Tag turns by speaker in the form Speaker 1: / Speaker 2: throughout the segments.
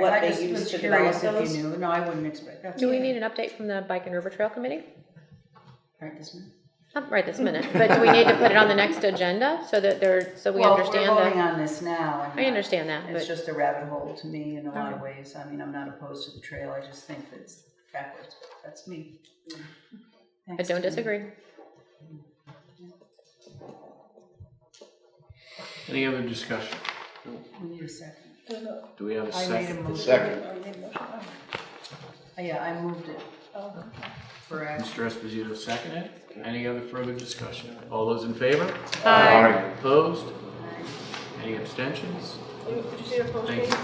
Speaker 1: what
Speaker 2: I
Speaker 1: they
Speaker 2: just
Speaker 1: use
Speaker 2: was
Speaker 1: to
Speaker 2: curious
Speaker 1: develop those.
Speaker 2: If you knew, no, I wouldn't expect that.
Speaker 3: Do we need an update from the Bike and River Trail Committee?
Speaker 2: Right this minute.
Speaker 3: Not right this minute, but do we need to put it on the next agenda so that there, so we
Speaker 2: Well,
Speaker 3: understand
Speaker 2: We're voting
Speaker 3: that?
Speaker 2: on this now. and uh,
Speaker 3: I understand that,
Speaker 2: It's
Speaker 3: but
Speaker 2: just a rabbit hole to me in a lot of ways. I mean, I'm not opposed to the trail, I just think it's backwards, but that's me.
Speaker 3: I don't disagree.
Speaker 4: Any other discussion?
Speaker 2: We need a second.
Speaker 4: Do we have a
Speaker 1: I made a
Speaker 4: second?
Speaker 1: motion.
Speaker 5: Second.
Speaker 1: I made a motion.
Speaker 2: Oh, Yeah, I moved it
Speaker 1: Oh, okay.
Speaker 2: for action.
Speaker 4: Mr. Esposito seconded. Any other further discussion? All those in favor?
Speaker 1: Uh,
Speaker 5: Aye.
Speaker 4: Opposed? Any abstentions?
Speaker 1: Did you see the post?
Speaker 4: Thank you.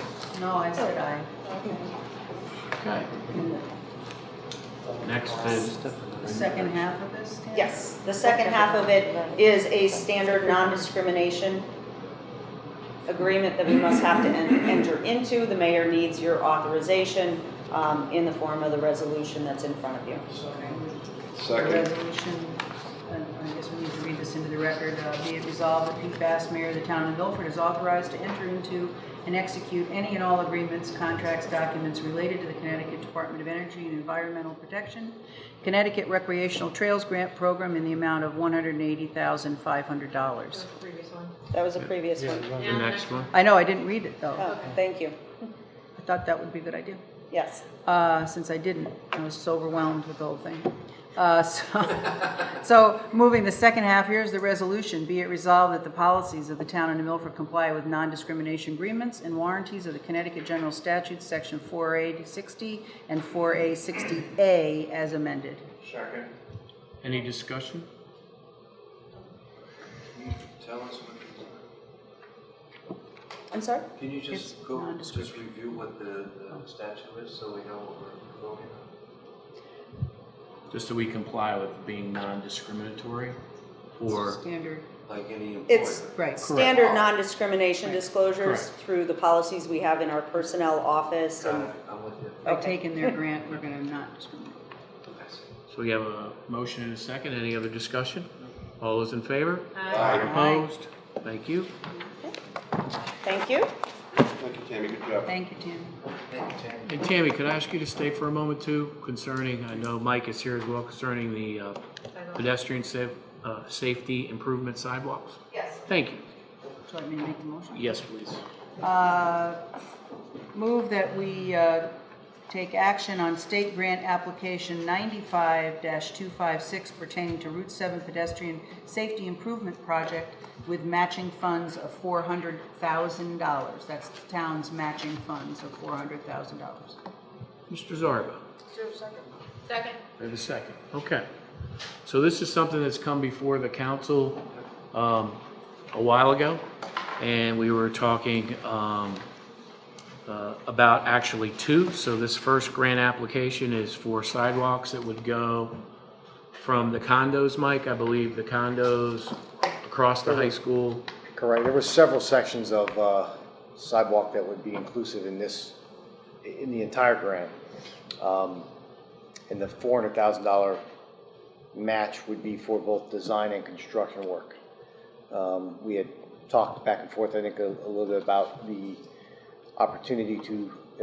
Speaker 2: No, I said I.
Speaker 1: Okay.
Speaker 4: Okay. Next is,
Speaker 2: The second half of this? Tim?
Speaker 1: Yes, the second half of it is a standard non-discrimination agreement that we must have to en- enter into. The mayor needs your authorization um, in the form of the resolution that's in front of you.
Speaker 2: Okay. The
Speaker 5: Second.
Speaker 2: resolution, and I guess we need to read this into the record, uh, be it resolved that Pete Bass, mayor of the town of Milford, is authorized to enter into and execute any and all agreements, contracts, documents related to the Connecticut Department of Energy and Environmental Protection, Connecticut Recreational Trails Grant Program in the amount of $180,500.
Speaker 1: That was a previous one.
Speaker 4: the next one.
Speaker 2: I know, I didn't read it, though.
Speaker 1: Oh, thank you.
Speaker 2: I thought that would be a good idea.
Speaker 1: Yes.
Speaker 2: uh, since I didn't. I was so overwhelmed with the whole thing. Uh, so, so moving the second half, here's the resolution. Be it resolved that the policies of the town of New Milford comply with non-discrimination agreements and warranties of the Connecticut General Statutes, Section 4A60 and 4A60A as amended.
Speaker 5: Second.
Speaker 4: Any discussion?
Speaker 5: Tell us, what
Speaker 1: I'm sorry?
Speaker 5: can you just
Speaker 2: It's
Speaker 5: go,
Speaker 2: nondescript.
Speaker 5: just review what the the statute is so we know what we're voting on?
Speaker 4: Just so we comply with being non-discriminatory for,
Speaker 2: Standard.
Speaker 5: Like any
Speaker 1: It's-
Speaker 5: employer.
Speaker 2: Right.
Speaker 1: Standard non-discrimination disclosures
Speaker 4: Correct.
Speaker 1: through the policies we have in our personnel office
Speaker 5: Got
Speaker 1: and
Speaker 5: it, I'm with you.
Speaker 2: By taking their grant, we're going to not discriminate.
Speaker 5: I see.
Speaker 4: so we have a motion and a second. Any other discussion? All those in favor?
Speaker 5: Aye.
Speaker 4: Opposed? Thank you.
Speaker 1: thank you.
Speaker 5: Thank you, Tammy, good job.
Speaker 2: Thank you, Tim.
Speaker 5: Thank you, Tammy.
Speaker 4: And Tammy, could I ask you to stay for a moment too concerning, I know Mike is here as well, concerning the uh, pedestrian sa- uh, safety improvement sidewalks?
Speaker 1: Yes.
Speaker 4: Thank
Speaker 2: Do
Speaker 4: you.
Speaker 2: you want me to make the motion?
Speaker 4: Yes, please.
Speaker 2: Uh, Move that we uh, take action on state grant application 95-256 pertaining to Route 7 pedestrian safety improvement project with matching funds of $400,000. That's the town's matching funds of $400,000.
Speaker 4: Mr. Zarba,
Speaker 3: Second.
Speaker 4: we have a second. Okay. So this is something that's come before the council um, a while ago, and we were talking um, uh, about actually two. So this first grant application is for sidewalks that would go from the condos, Mike, I believe, the condos across the high school.
Speaker 6: Correct. There were several sections of uh, sidewalk that would be inclusive in this, in the entire grant. Um, And the $400,000 match would be for both design and construction work. Um, We had talked back and forth, I think, a a little bit about the opportunity to,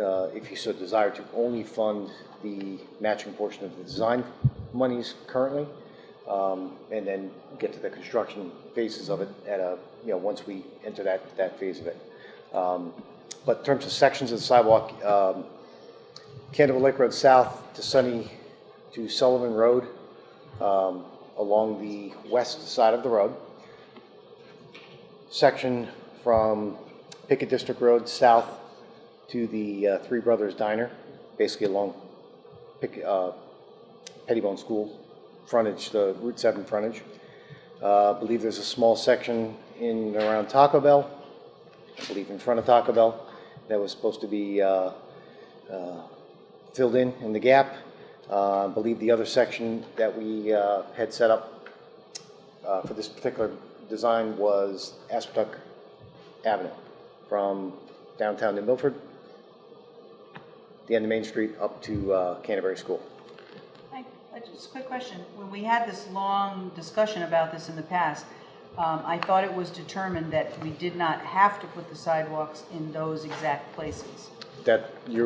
Speaker 6: uh, if you so desire, to only fund the matching portion of the design monies currently, um, and then get to the construction phases of it at a, you know, once we enter that, that phase of it. Um, But in terms of sections of the sidewalk, um, Candlewood Lake Road South to Sunny, to Sullivan Road, um, along the west side of the road. Section from Pickett District Road south to the uh, Three Brothers Diner, basically along Pick, uh, Pettibone School frontage, the Route 7 frontage. Uh, I believe there's a small section in and around Taco Bell, I believe in front of Taco Bell, that was supposed to be uh, filled in in the gap. Uh, I believe the other section that we uh, had set up uh, for this particular design was Aspetuck Avenue from downtown New Milford, the end of Main Street up to uh, Canterbury School.
Speaker 2: I- I Just a quick question. When we had this long discussion about this in the past, um, I thought it was determined that we did not have to put the sidewalks in those exact places.
Speaker 6: that you're